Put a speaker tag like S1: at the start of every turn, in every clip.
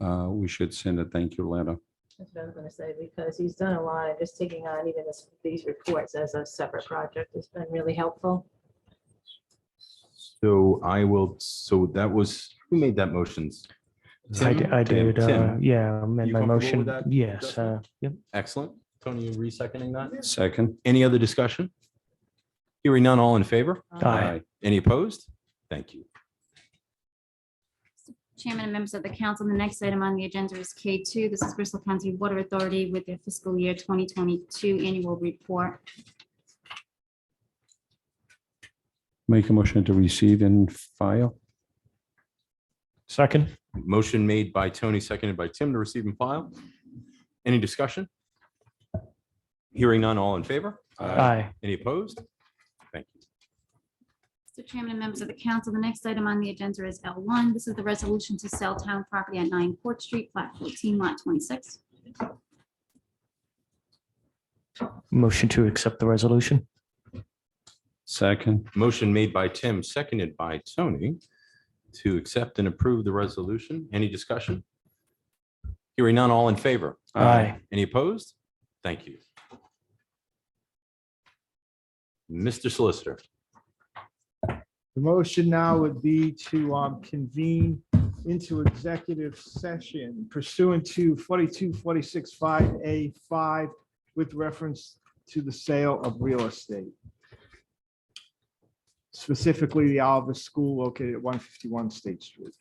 S1: uh, we should send a thank you letter.
S2: That's what I was gonna say, because he's done a lot, and just taking on even this, these reports as a separate project has been really helpful.
S3: So I will, so that was, who made that motions?
S4: I, d-
S3: Tim?
S4: I did, uh,
S3: Tim.
S4: yeah, I made
S3: You comfortable
S4: my
S3: with
S4: motion,
S3: that
S4: yes, uh,
S3: adjustment?
S4: yep.
S3: Excellent. Tony, you re-seconding that?
S1: Second.
S3: Any other discussion? Hearing none, all in favor?
S2: Um,
S4: Aye.
S3: Any opposed? Thank you.
S5: Chairman and members of the council, the next item on the agenda is K2. This is Bristol County Water Authority with their fiscal year 2022 annual report.
S1: Make a motion to receive and file.
S4: Second,
S3: Motion made by Tony, seconded by Tim to receive and file. Any discussion? Hearing none, all in favor?
S4: aye,
S3: Any opposed? Thank you.
S5: Mr. Chairman and members of the council, the next item on the agenda is L1. This is the resolution to sell town property at 9 Court Street, Flat 14, Lot 26.
S4: motion to accept the resolution,
S1: Second.
S3: Motion made by Tim, seconded by Tony to accept and approve the resolution. Any discussion? Hearing none, all in favor?
S4: aye,
S3: Any opposed? Thank you. Mr. Solicitor,
S6: The motion now would be to um, convene into executive session pursuant to 42465A5 with reference to the sale of real estate. Specifically, the Oliver School located at 151 State Street.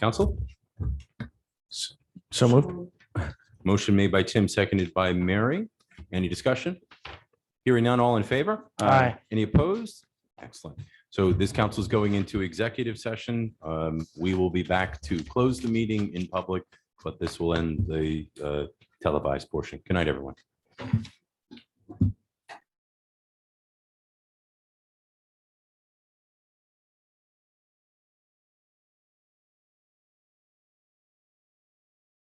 S3: Council.
S4: so moved,
S3: Motion made by Tim, seconded by Mary. Any discussion? Hearing none, all in favor?
S4: aye,
S3: Any opposed? Excellent. So this council is going into executive session. Um, We will be back to close the meeting in public, but this will end the uh, televised portion. Good night, everyone.